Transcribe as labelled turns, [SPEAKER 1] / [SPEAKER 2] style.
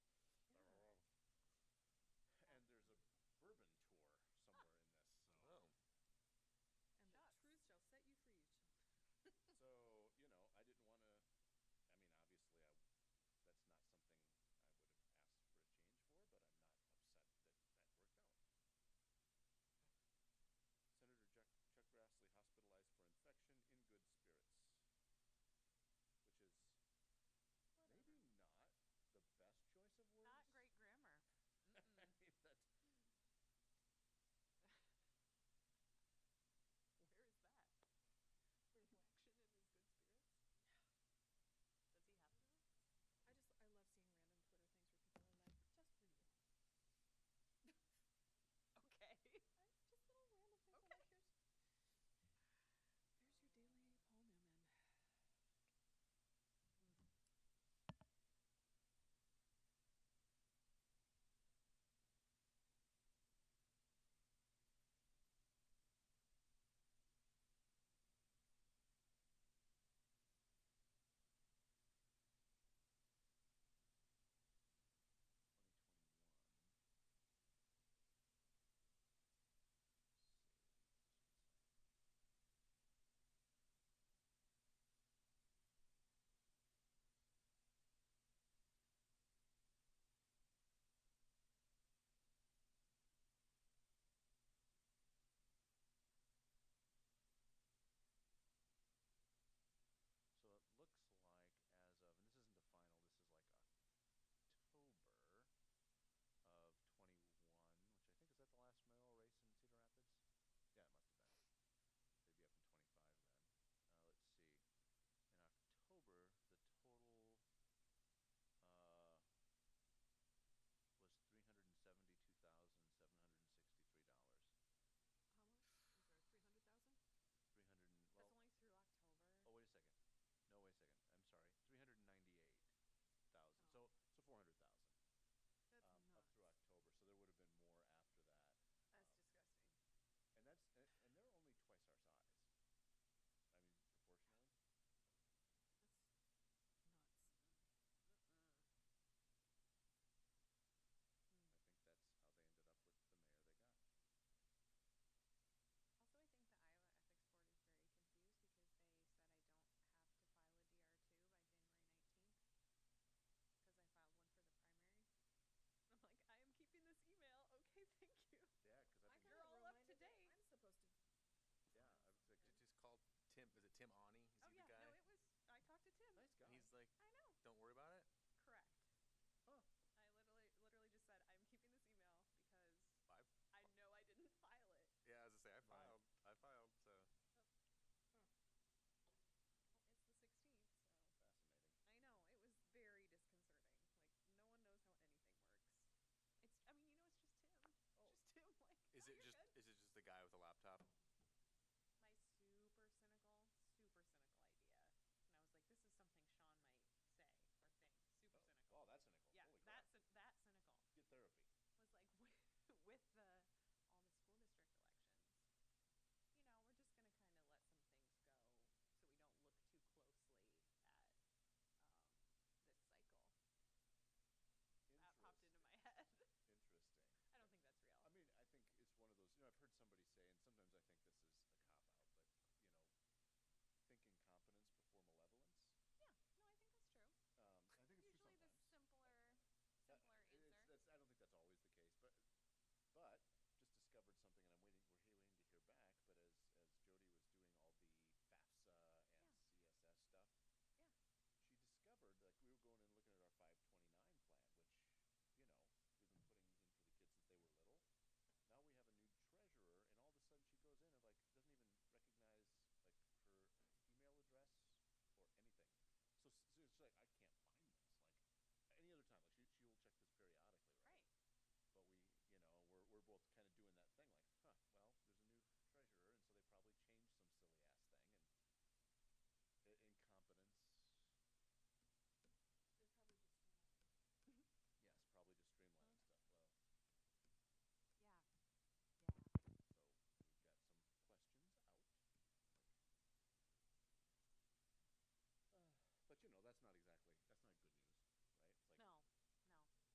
[SPEAKER 1] Oh,
[SPEAKER 2] He's like,
[SPEAKER 1] I know.
[SPEAKER 2] don't worry about it.
[SPEAKER 1] Correct.
[SPEAKER 2] Huh.
[SPEAKER 1] I literally, literally just said I'm keeping this email because
[SPEAKER 2] I,
[SPEAKER 1] I know I didn't file it.
[SPEAKER 2] yeah, as I
[SPEAKER 3] Right.
[SPEAKER 2] say, I filed. I filed. So
[SPEAKER 1] Well, it's the 16th, so
[SPEAKER 3] Fascinating.
[SPEAKER 1] I know it was very disconcerting. Like no one knows how anything works. It's. I mean, you know,
[SPEAKER 3] Oh. Oh, wow, that's cynical. Holy crap. Get therapy.
[SPEAKER 1] it's just Tim. Just Tim. Like. "No, you're good." my super cynical, super cynical idea, and I was like, this is something Sean might say or think. Super cynical. yeah, that's that Oh, cynical. was like with,
[SPEAKER 2] is it just is it just the guy with a laptop?
[SPEAKER 1] with the all the school district elections. You know, we're just going to kind of let some things go so we don't look too
[SPEAKER 3] Interesting. I mean, I think it's
[SPEAKER 1] closely at um, this cycle. um, That popped into my head. I don't think that's real.
[SPEAKER 3] one of those. You know, I've heard somebody say, and sometimes I think this
[SPEAKER 1] Um, Uh,